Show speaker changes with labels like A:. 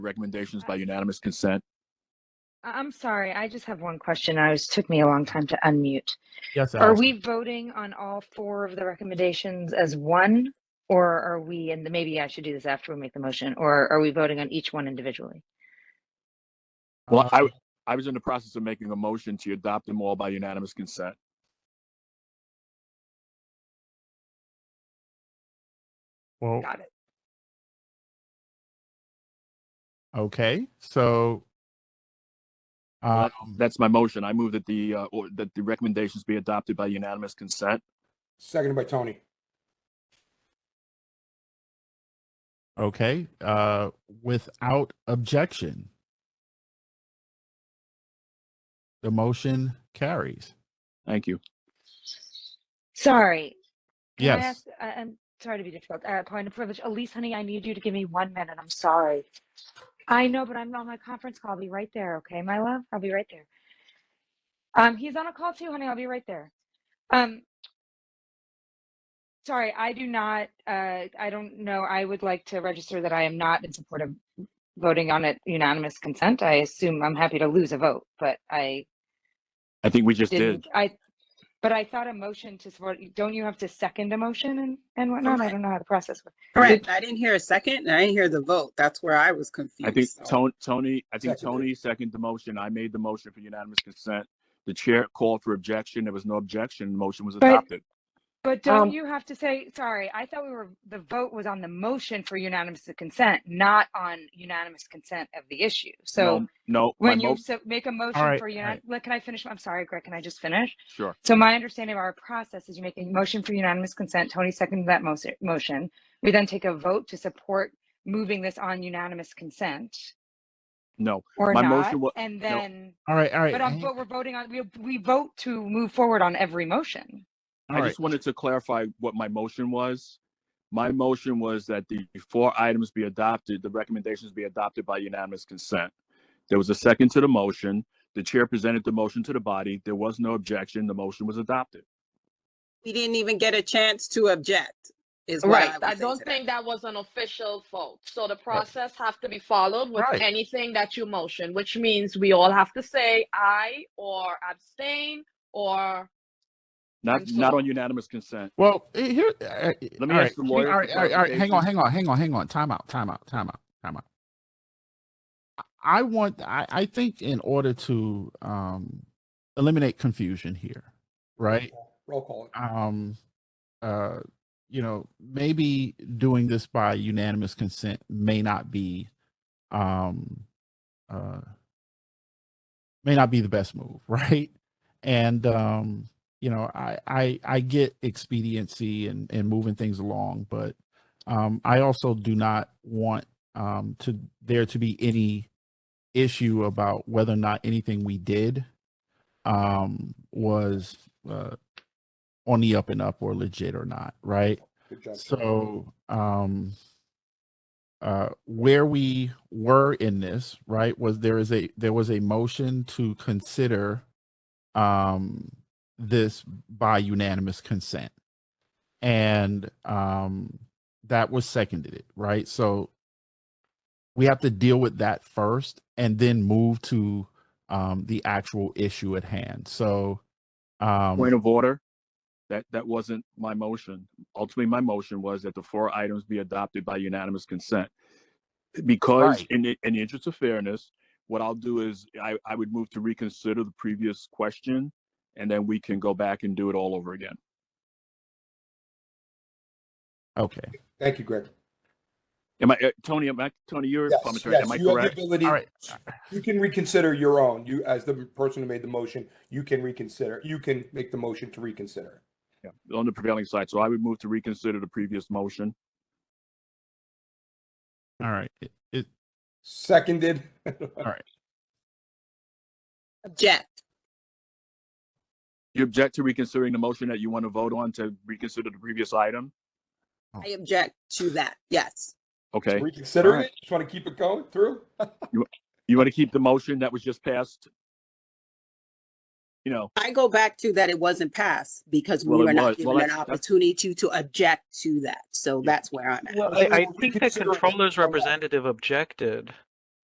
A: Recommendations by unanimous consent.
B: I- I'm sorry, I just have one question. I was, took me a long time to unmute.
C: Yes,
B: Are
C: Allison.
B: we voting on all four of the recommendations as one? Or are we, and maybe I should do this after we make the motion, or are we voting on each one individually?
A: Well, I,
C: Uh,
A: I was in the process of making a motion to adopt them all by unanimous consent.
C: well,
B: Got it.
C: okay. So, um,
A: Well, That's my motion. I move that the, uh, or that the recommendations be adopted by unanimous consent.
D: Seconded by Tony.
C: okay. Uh, without objection, the motion carries.
A: Thank you.
B: Sorry. Can I
C: Yes.
B: ask- I- I'm sorry to be difficult. Uh, Point of privilege. Elise, honey, I need you to give me one minute. I'm sorry. I know, but I'm on my conference call. I'll be right there, okay, my love? I'll be right there. Um, he's on a call too, honey. I'll be right there. Um, sorry, I do not, uh, I don't know. I would like to register that I am not in support of voting on it unanimous consent. I assume I'm happy to lose a vote, but I
A: I think we just did.
B: didn't, I, but I thought a motion to support, don't you have to second a motion and, and whatnot? I
E: Correct.
B: don't know how the process works.
E: Correct. I didn't hear a second and I didn't hear the vote. That's where I was confused.
A: I think
E: so-
A: Tony, Tony, I think
D: Seconded.
A: Tony seconded the motion. I made the motion for unanimous consent. The chair called for objection. There was no objection. The motion was
B: But-
A: adopted.
B: But don't
F: Um,
B: you have to say, sorry, I thought we were, the vote was on the motion for unanimous consent, not on unanimous consent of the issue. So
A: No, No, my
B: when you
A: mo,
B: so- make a motion
C: right,
B: for
C: all
B: unan,
C: right.
B: look, can I finish? I'm sorry, Greg, can I just finish?
A: sure.
B: So my understanding of our process is you make a motion for unanimous consent, Tony seconded that mo- motion. We then take a vote to support moving this on unanimous consent
A: No,
B: or
A: My
B: not,
A: motion wa-
B: and then.
C: All right. All right.
B: But, um,
C: hang-
B: but we're voting on, we, we vote to move forward on every motion.
C: all
A: I
C: right.
A: just wanted to clarify what my motion was. My motion was that the four items be adopted, the recommendations be adopted by unanimous consent. There was a second to the motion. The chair presented the motion to the body. There was no objection. The motion was adopted.
E: We didn't even get a chance to object is what I
F: Right,
E: would
F: I
E: say
F: don't
E: to that.
F: think that was an official vote, so the process have to be followed with
C: Right.
F: anything that you motion, which means we all have to say aye or abstain or
A: Not,
F: I'm
A: not
F: sorry.
A: on unanimous consent.
C: Well, eh, here. Let
A: Let me ask the lawyer
C: All
A: for
C: right, all right, all right. Hang on,
A: clarification.
C: hang on, hang on, hang on. Time out, time out, time out, time out. I- I want. I, I think in order to um, eliminate confusion here, right?
D: Roll call.
C: Um, uh, you know, maybe doing this by unanimous consent may not be, um, uh, may not be the best move, right? and um you know i i i get expediency and and moving things along but um i also do not want um to there to be any issue about whether or not anything we did um was uh on the up and up or legit or not right
D: Good job.
C: so um uh where we were in this right was there is a there was a motion to consider um this by unanimous consent and um that was seconded it right so we have to deal with that first and then move to um the actual issue at hand so um
A: Point of order. That, that wasn't my motion. Ultimately, my motion was that the four items be adopted by unanimous consent. Because
C: Right.
A: in the, in the interest of fairness, what I'll do is I, I would move to reconsider the previous question and then we can go back and do it all over again.
C: okay
D: Thank you, Greg.
A: Am I, uh, Tony, am I, Tony, you're a
D: Yes,
A: parliamentarian,
D: yes,
A: am I
D: you have the
A: correct?
D: ability-
C: all right
D: You can reconsider your own. You, as the person who made the motion, you can reconsider. You can make the motion to reconsider.
A: Yeah, On the prevailing side, so I would move to reconsider the previous motion.
C: all right it, it
D: Seconded.
E: Object.
A: You object to reconsidering the motion that you want to vote on to reconsider the previous item?
E: I object to that. Yes.
A: Okay,
D: Reconsider
A: Alright.
D: it? Just want to keep it going through?
A: you want to keep the motion that was just passed? You know,
E: I go back to that it wasn't passed because we
A: Well, it
E: were
A: was.
E: not
A: Well,
E: given an
A: that's- that's-
E: opportunity to object to that. So that's where I'm at.
G: Well,
D: Well,
G: I, I
D: we
G: think the
D: consider it-
G: controller's
D: Hold on.
G: representative objected.